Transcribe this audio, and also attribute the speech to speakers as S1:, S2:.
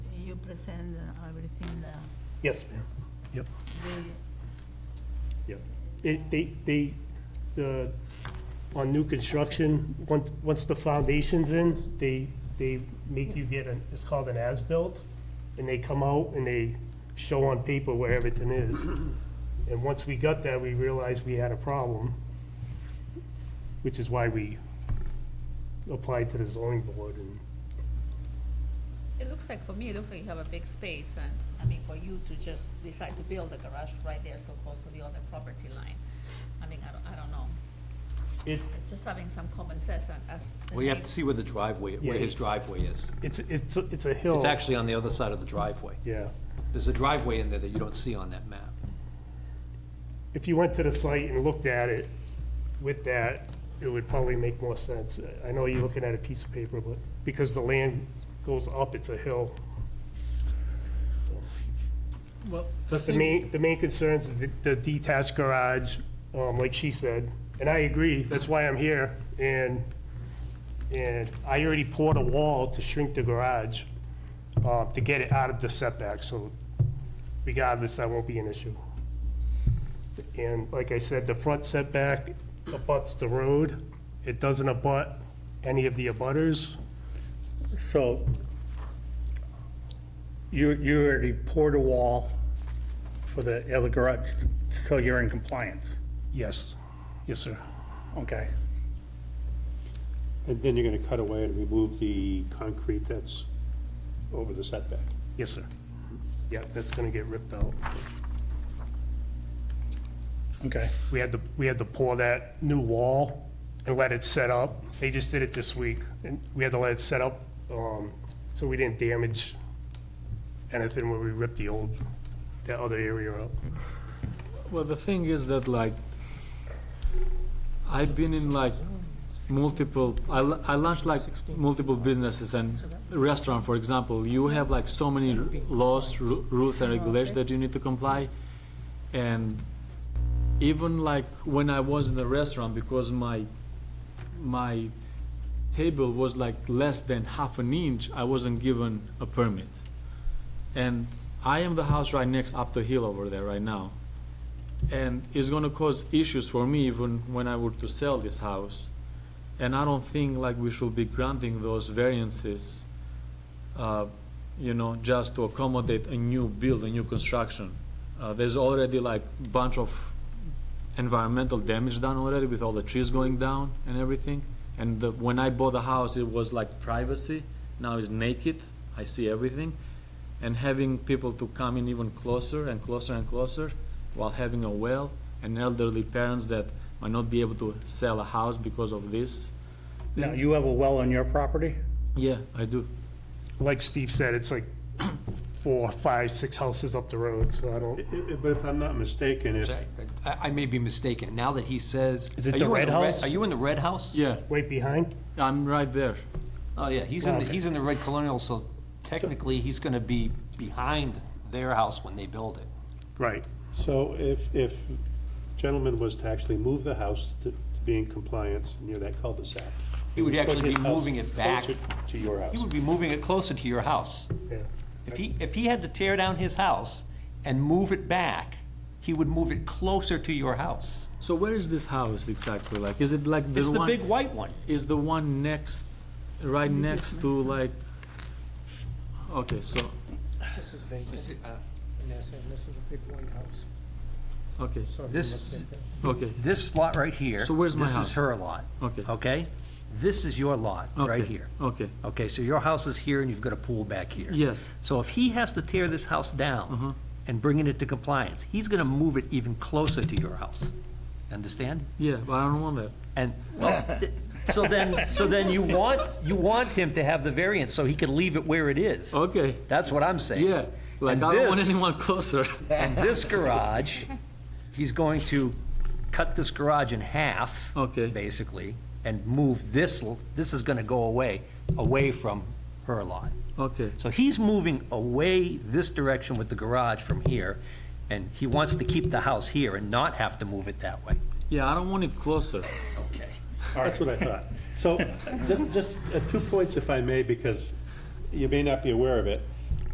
S1: present uh, everything, uh,
S2: Yes, ma'am. Yep,
S1: the-
S2: yep. It, they, they, the, on new construction, once, once the foundation's in, they, they make you get an, it's called an as-built, and they come out and they show on paper where everything is. And once we got that, we realized we had a problem, which is why we applied to the zoning board and,
S3: It looks like, for me, it looks like you have a big space, and, I mean, for you to just decide to build a garage right there so close to the other property line, I mean, I don't, I don't know.
S2: it,
S3: It's just having some common sense and as. the
S4: Well, you have
S3: name-
S4: to see where the driveway, where
S2: Yeah.
S4: his driveway is.
S2: it's, it's, a- it's a hill.
S4: It's actually on the other side of the driveway.
S2: Yeah.
S4: There's a driveway in there that you don't see on that map.
S2: if you went to the site and looked at it with that, it would probably make more sense. I know you're looking at a piece of paper, but because the land goes up, it's a hill.
S5: Well,
S2: But the main, the main concerns, is the- the detached garage, um, like she said, and I agree, that's why I'm here. And, and I already poured a wall to shrink the garage, uh, to get it out of the setback, so regardless, that won't be an issue. And like I said, the front setback abuts the road. It doesn't abut any of the abutters.
S5: so you, you already poured a wall for the other garage, so you're in compliance,
S2: Yes, yes, sir.
S5: okay?
S6: And then you're gonna cut away and remove the concrete that's over the setback.
S2: Yes, sir. Yeah, that's gonna get ripped out.
S5: Okay,
S2: We had to, we had to pour that new wall and let it set up. They just did it this week, and we had to let it set up, um, so we didn't damage anything where we ripped the old, that other area up.
S7: Well, the thing is that like, I've been in like multiple, I, l- I launched like multiple businesses and restaurant, for example, you have like so many r- laws, ru- rules and regulations that you need to comply. And even like when I was in the restaurant, because my, my table was like less than half an inch, I wasn't given a permit. And I am the house right next up the hill over there right now and it's gonna cause issues for me even when I were to sell this house. And I don't think like we should be granting those variances, uh, you know, just to accommodate a new build, a new construction. Uh, there's already like bunch of environmental damage done already with all the trees going down and everything. And the, when I bought the house, it was like privacy, now it's naked, I see everything. And having people to come in even closer and closer and closer, while having a well and elderly parents that might not be able to sell a house because of this.
S5: now,
S7: things.
S5: you have a well on your property?
S7: Yeah, I do.
S2: Like Steve said, it's like four, five, six houses up the road, so I don't,
S6: I- I- But if I'm not mistaken, if,
S4: I, I may be mistaken. Now that he says.
S2: Is it
S4: Are
S2: the
S4: you in
S2: red house?
S4: Are you in the red house?
S7: Yeah,
S2: wait behind?
S7: I'm right there.
S4: Oh, yeah, he's in, the
S2: Okay.
S4: he's in the red colonial, so technically, he's gonna be behind their house when they build it.
S2: Right.
S6: so if, if gentleman was to actually move the house to to be in compliance near that cul-de-sac.
S4: He would
S6: put
S4: actually be
S6: his house
S4: moving it back.
S6: closer To your
S4: He
S6: house.
S4: would be moving it closer to your house.
S2: Yeah.
S4: If he, if he had to tear down his house and move it back, he would move it closer to your house.
S7: So where is this house exactly? Like, is it like the
S4: It's the
S7: one?
S4: big white one.
S7: Is the one next, right next to like? Okay, so
S8: This is vacant, and that's, and this is a big white house.
S7: okay,
S8: So if you
S4: This-
S8: look at that-
S7: okay,
S4: This lot right here.
S7: So where's my
S4: This
S7: house?
S4: is her lot,
S7: okay.
S4: okay? This is your lot, right
S7: okay,
S4: here.
S7: Okay,
S4: Okay, so your house is here and you've got a pool back here.
S7: yes.
S4: So if he has to tear this house
S7: Mm-hmm.
S4: down and bring it into compliance, he's gonna move it even closer to your house. Understand?
S7: Yeah, but I don't want that.
S4: And, well, th- so then, so then you want, you want him to have the variance so he can leave it where it is.
S7: Okay,
S4: That's what I'm saying.
S7: yeah. Like,
S4: And
S7: I don't want
S4: this-
S7: anyone closer.
S4: And this garage, he's going to cut this garage in half.
S7: Okay.
S4: Basically, and move this, l- this is gonna go away, away from her lot.
S7: Okay,
S4: So he's moving away this direction with the garage from here, and he wants to keep the house here and not have to move it that way.
S7: yeah, I don't want it closer.
S4: Okay.
S6: That's what I thought. So, just, just uh, two points if I may, because you may not be aware of it.